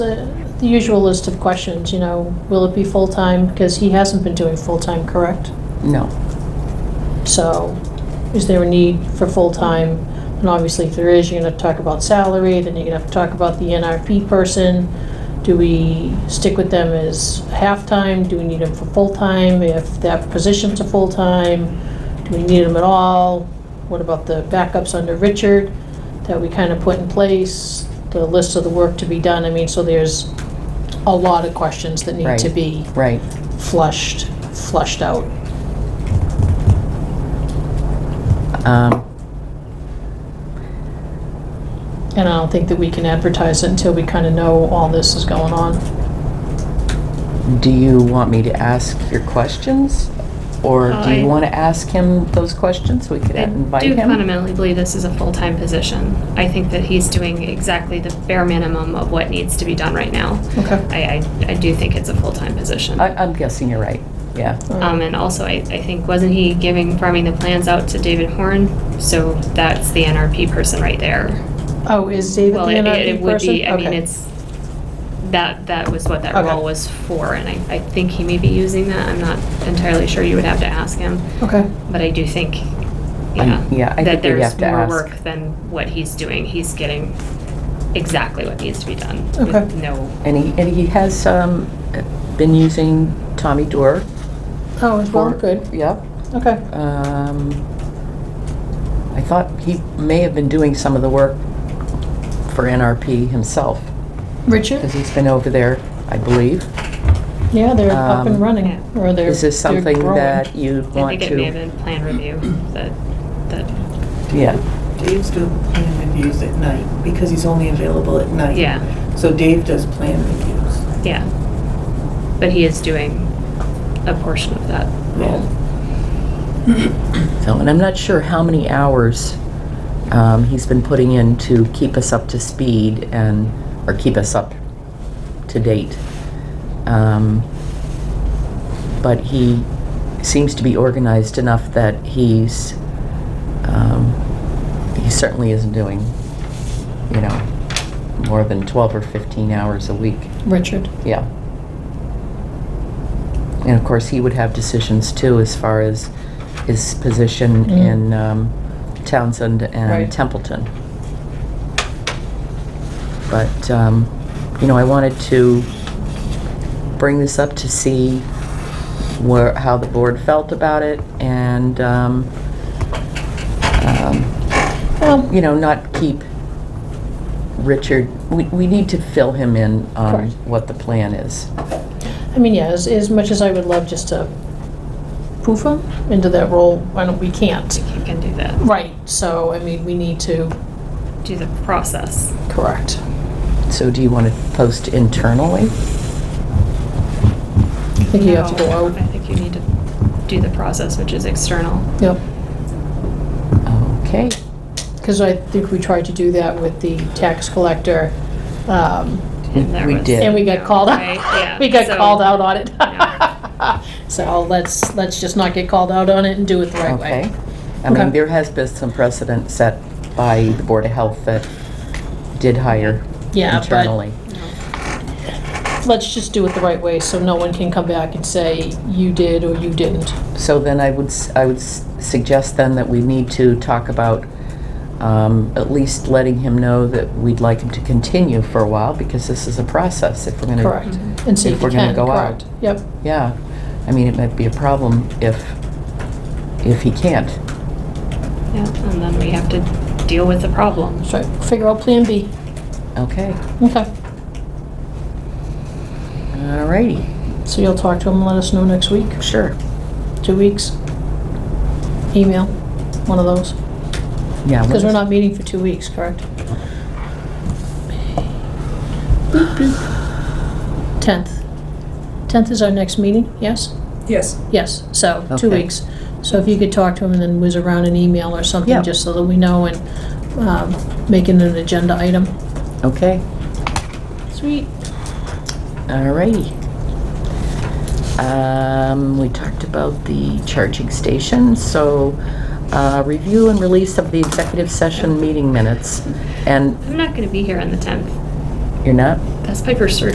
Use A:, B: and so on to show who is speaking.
A: The the usual list of questions, you know, will it be full-time? Because he hasn't been doing full-time, correct?
B: No.
A: So is there a need for full-time? And obviously, if there is, you're gonna talk about salary, then you're gonna have to talk about the NRP person. Do we stick with them as half-time? Do we need them for full-time? If that position's a full-time, do we need them at all? What about the backups under Richard that we kind of put in place? The list of the work to be done, I mean, so there's a lot of questions that need to
B: Right.
A: be
B: Right.
A: flushed, flushed out.
B: Um,
A: And I don't think that we can advertise it until we kind of know all this is going on.
B: Do you want me to ask your questions? Or do
C: I-
B: you want to ask him those questions? We could
C: I
B: invite
C: do
B: him?
C: fundamentally believe this is a full-time position. I think that he's doing exactly the bare minimum of what needs to be done right now.
A: Okay.
C: I, I, I do think it's a full-time position.
B: I- I'm guessing you're right, yeah.
C: Um, and also, I, I think, wasn't he giving, farming the plans out to David Horn? So that's the NRP person right there.
A: Oh, is David the
C: Well, it- it- it
A: NRP
C: would
A: person?
C: be. I mean,
A: Okay.
C: it's, that, that was what that
A: Okay.
C: role was for, and I, I think he may be using that. I'm not entirely sure. You would have to ask him.
A: Okay,
C: But I do think, yeah,
B: I- yeah, I
C: that
B: think we'd
C: there's
B: have to
C: more
B: ask.
C: work than what he's doing. He's getting exactly what needs to be done. with
A: Okay.
C: No,
B: And he, and he has um, been using Tommy Door.
A: oh, it's well,
B: for-
A: good,
B: Yep.
A: okay.
B: Um, I thought he may have been doing some of the work for NRP himself,
A: Richard?
B: because he's been over there, I believe.
A: Yeah, they're up and
B: Um,
A: running, or they're.
B: Is this
A: they're
B: something
A: growing.
B: that you
C: I
B: want
C: think
B: to?
C: it may have been plan review that, that,
B: Yeah,
D: Dave's doing plan reviews at night because he's only available at night.
C: yeah,
D: So Dave does plan reviews.
C: yeah. But he is doing a portion of that role.
B: so, and I'm not sure how many hours um, he's been putting in to keep us up to speed and, or keep us up to date. Um, But he seems to be organized enough that he's, um, he certainly isn't doing, you know, more than 12 or 15 hours a week.
A: Richard,
B: Yeah. And of course, he would have decisions too, as far as his position
A: Mm.
B: in um, Townsend
A: Right.
B: and Templeton. But, um, you know, I wanted to bring this up to see where, how the board felt about it and, um, um,
A: well,
B: you know, not keep Richard, we, we need to fill him in on
A: Correct.
B: what the plan is.
A: I mean, yeah, as, as much as I would love just to poof him into that role, why don't, we can't.
C: You can do that,
A: Right, so, I mean, we need to.
C: do the process.
A: Correct.
B: So do you want to post internally?
A: I think you have to go
C: Oh, I
A: out,
C: think you need to do the process, which is external.
A: yep.
B: Okay,
A: Because I think we tried to do that with the tax collector, um,
B: We-
C: And there
B: we
C: was-
B: did.
A: and we got
C: No,
A: called
C: right, yeah,
A: out. We got
C: so-
A: called out on it. So let's, let's just not get called out on it and do it the right
B: okay.
A: way.
B: I
A: Okay.
B: mean, there has been some precedent set by the Board of Health that did hire
A: Yeah, but-
B: internally.
C: No.
A: Let's just do it the right way, so no one can come back and say, you did or you didn't.
B: So then I would, s- I would s- suggest then that we need to talk about um, at least letting him know that we'd like him to continue for a while, because this is a process, if we're going to...
A: Correct.
C: Mhm.
A: And see
B: If
A: if you
B: we're gonna
A: can,
B: go out.
A: correct. Yep,
B: Yeah, I mean, it might be a problem if, if he can't.
C: Yeah, and then we have to deal with the problem.
A: that's right. Figure out Plan B.
B: Okay,
A: Okay.
B: all righty,
A: So you'll talk to him and let us know next week,
B: sure,
A: two weeks? Email, one of those.
B: yeah.
A: Because we're
B: let's-
A: not meeting for two weeks, correct? 10th. 10th is our next meeting, yes?
D: Yes.
A: Yes, so, two
B: Okay.
A: weeks. So if you could talk to him and then whiz around an email or
B: Yeah.
A: something, just so that we know and um, make it an agenda item.
B: Okay,
A: Sweet.
B: all righty. Um, we talked about the charging station, so, uh, review and release of the executive session meeting minutes, and
C: I'm not gonna be here on the 10th.
B: you're not?
C: That's Piper's surgery.